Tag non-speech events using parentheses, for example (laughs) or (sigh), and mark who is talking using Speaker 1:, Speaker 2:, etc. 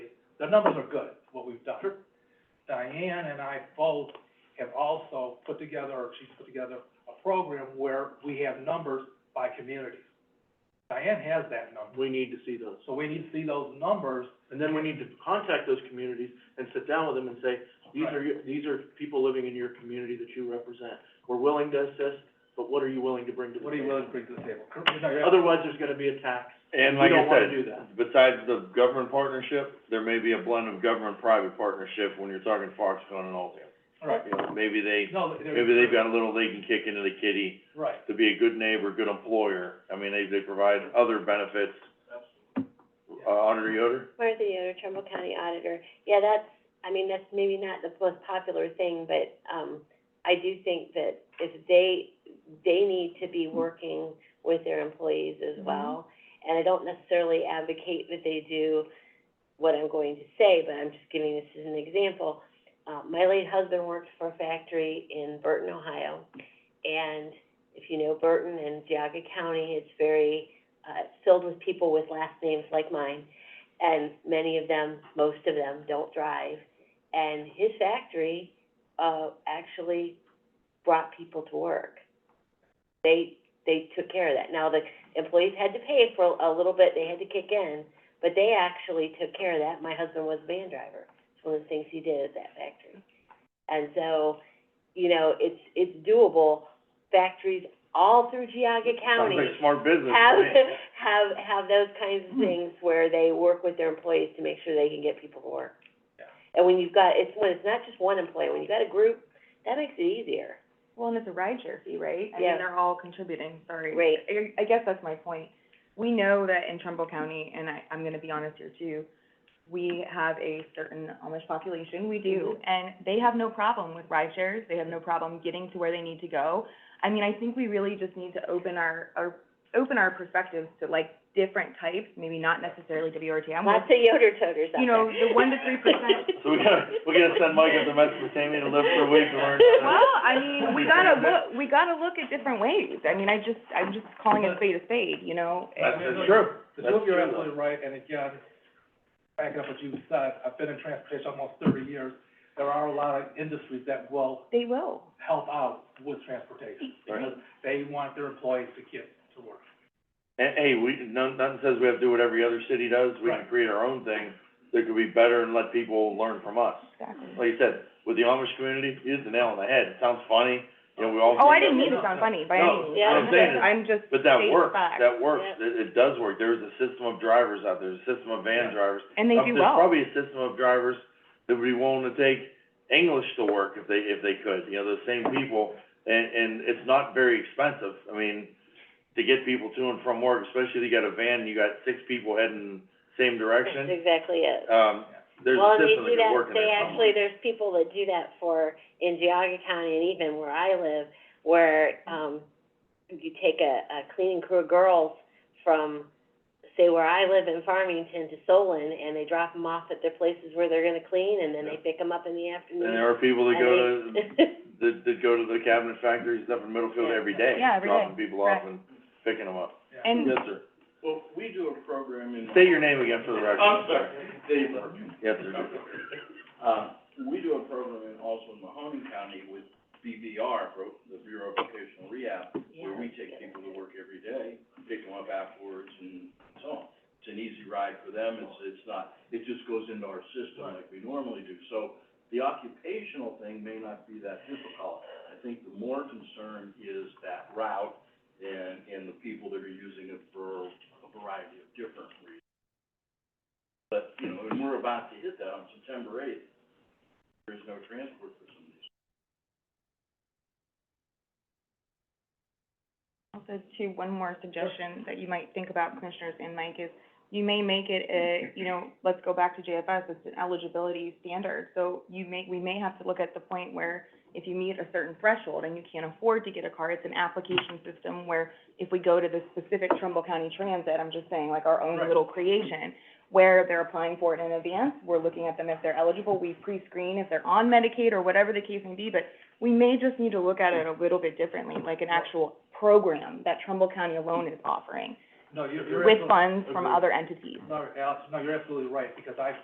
Speaker 1: the numbers are good, what we've done. Diane and I both have also put together, or she's put together, a program where we have numbers by communities. Diane has that number,
Speaker 2: We need to see those.
Speaker 1: so we need to see those numbers,
Speaker 2: And then we need to contact those communities and sit down with them and say, these are, your- these are people living in your community that you represent. We're willing to assist, but what are you willing to bring to the
Speaker 1: what are you
Speaker 2: table?
Speaker 1: willing to bring to the table? Cor- you know, you're-
Speaker 2: Otherwise, there's gonna be a tax.
Speaker 3: And
Speaker 2: We
Speaker 3: like I
Speaker 2: don't wanna
Speaker 3: said,
Speaker 2: do that.
Speaker 3: besides the government partnership, there may be a blend of government-private partnership when you're talking Foxconn and Altium.
Speaker 1: All right.
Speaker 3: You know, maybe they,
Speaker 1: No, there-
Speaker 3: maybe they've got a little they can kick into the kitty
Speaker 1: Right,
Speaker 3: to be a good neighbor, good employer. I mean, they, they provide other benefits. Uh, Auditor Yoder?
Speaker 4: Martha Yoder, Trumbull County Auditor. Yeah, that's, I mean, that's maybe not the most popular thing, but, um, I do think that if they, they need to be working with their employees as well. And I don't necessarily advocate that they do what I'm going to say, but I'm just giving this as an example. Uh, my late husband worked for a factory in Burton, Ohio, and if you know Burton and Geauga County, it's very, uh, filled with people with last names like mine and many of them, most of them, don't drive. And his factory, uh, actually brought people to work. They, they took care of that. Now, the employees had to pay for a little bit, they had to kick in, but they actually took care of that. My husband was a van driver. It's one of the things he did at that factory. And so, you know, it's, it's doable. Factories all through Geauga County
Speaker 3: Sounds like smart business.
Speaker 4: have,
Speaker 3: to me.
Speaker 4: have, have those kinds of things where they work with their employees to make sure they can get people to work.
Speaker 1: Yeah.
Speaker 4: And when you've got, it's, when it's not just one employee, when you've got a group, that makes it easier.
Speaker 5: Well, and it's a rideshare fee, right? I
Speaker 4: Yeah.
Speaker 5: mean, they're all contributing, sorry.
Speaker 4: Right.
Speaker 5: I, I guess that's my point. We know that in Trumbull County, and I, I'm gonna be honest here too, we have a certain Amish population, we do,
Speaker 4: Mm-hmm.
Speaker 5: and they have no problem with ride shares, they have no problem getting to where they need to go. I mean, I think we really just need to open our, our, open our perspectives to like different types, maybe not necessarily WRTA. I'm
Speaker 4: Lots of yoder toters out there.
Speaker 5: You know, the 1% to 3%.
Speaker 3: (laughs) So we gotta, we gotta send Mike up to Mesopotamia to live for a week to learn.
Speaker 5: (laughs)
Speaker 4: (laughs)
Speaker 5: Well, I mean, we gotta look, we gotta look at different ways. I mean, I just, I'm just calling a spade a spade, you know?
Speaker 3: That's
Speaker 5: And-
Speaker 3: that's true.
Speaker 1: The two
Speaker 3: That's
Speaker 1: of you are
Speaker 3: true, though.
Speaker 1: absolutely right, and again, backing up what you said, I've been in transportation almost thirty years. There are a lot of industries that will
Speaker 5: They will.
Speaker 1: help out with transportation,
Speaker 3: Right.
Speaker 1: because they want their employees to get to work.
Speaker 3: And, hey, we, none, nothing says we have to do what every other city does, we can
Speaker 1: Right.
Speaker 3: create our own thing that could be better and let people learn from us.
Speaker 5: Exactly.
Speaker 3: Like you said, with the Amish community, you hit the nail on the head, it sounds funny, you know, we all.
Speaker 5: Oh, I
Speaker 3: think
Speaker 5: didn't
Speaker 3: that-
Speaker 5: mean to sound funny by
Speaker 3: No,
Speaker 5: any means.
Speaker 4: what I'm
Speaker 5: I'm
Speaker 3: saying
Speaker 5: just,
Speaker 3: is-
Speaker 5: I'm just
Speaker 3: But that
Speaker 5: stating
Speaker 3: works,
Speaker 5: facts.
Speaker 3: that works,
Speaker 4: Yep.
Speaker 3: it, it does work, there's a system of drivers out there, there's a system of van
Speaker 1: Yeah.
Speaker 3: drivers.
Speaker 5: And they
Speaker 3: Um,
Speaker 5: do
Speaker 3: There's
Speaker 5: well.
Speaker 3: probably a system of drivers that would be willing to take English to work if they, if they could, you know, those same people. And, and it's not very expensive, I mean, to get people to and from work, especially if you got a van, you got six people heading same
Speaker 4: That's
Speaker 3: direction.
Speaker 4: exactly it.
Speaker 3: Um, there's
Speaker 4: Well,
Speaker 3: a
Speaker 4: and they
Speaker 3: system
Speaker 4: do
Speaker 3: that
Speaker 4: that,
Speaker 3: could work in
Speaker 4: they
Speaker 3: there
Speaker 4: actually,
Speaker 3: somewhere.
Speaker 4: there's people that do that for, in Geauga County and even where I live, where, um, you take a, a cleaning crew of girls from, say, where I live in Farmington to Solon, and they drop them off at their places where they're gonna clean, and then they pick them up in the afternoon.
Speaker 3: And there are people that
Speaker 4: and
Speaker 3: go
Speaker 4: they- (laughs)
Speaker 3: to, that, that go to the cabinet factories up in Middlefield
Speaker 4: Yeah.
Speaker 3: every day.
Speaker 5: Yeah, every
Speaker 3: Dropping
Speaker 5: day.
Speaker 3: people off
Speaker 5: Right. Mm.
Speaker 3: and picking them up.
Speaker 1: Yeah.
Speaker 5: And-
Speaker 3: Yes, sir.
Speaker 6: Well, we do a program in.
Speaker 3: State your name again for the record.
Speaker 6: I'm sorry, Dave Burke.
Speaker 3: Yes, sir.
Speaker 6: Uh, we do a program in, also in Mahoning County with BVR, Bro- the Bureau of Vocational Rehab, where we take people to work every day, pick them up afterwards and so on. It's an easy ride for them, it's, it's not, it just goes into our system like we normally do. So the occupational thing may not be that difficult. I think the more concern is that route and, and the people that are using it for a variety of different reasons. But, you know, and we're about to hit that on September eighth. There's no transport for some of these.
Speaker 5: Also, too, one more suggestion that you might think about, Commissioners and Mike, is you may make it a, you know, let's go back to JFS, it's an eligibility standard. So you may, we may have to look at the point where if you meet a certain threshold and you can't afford to get a car, it's an application system where if we go to the specific Trumbull County Transit, I'm just saying, like our own
Speaker 1: Right.
Speaker 5: little creation, where they're applying for it in advance, we're looking at them if they're eligible, we pre-screen if they're on Medicaid or whatever the case may be, but we may just need to look at it a little bit differently, like an actual program that Trumbull County alone is offering
Speaker 1: No, you're, you're
Speaker 5: with
Speaker 1: absolutely,
Speaker 5: funds from
Speaker 1: Agreed.
Speaker 5: other entities.
Speaker 1: no, Alex, no, you're absolutely right, because I've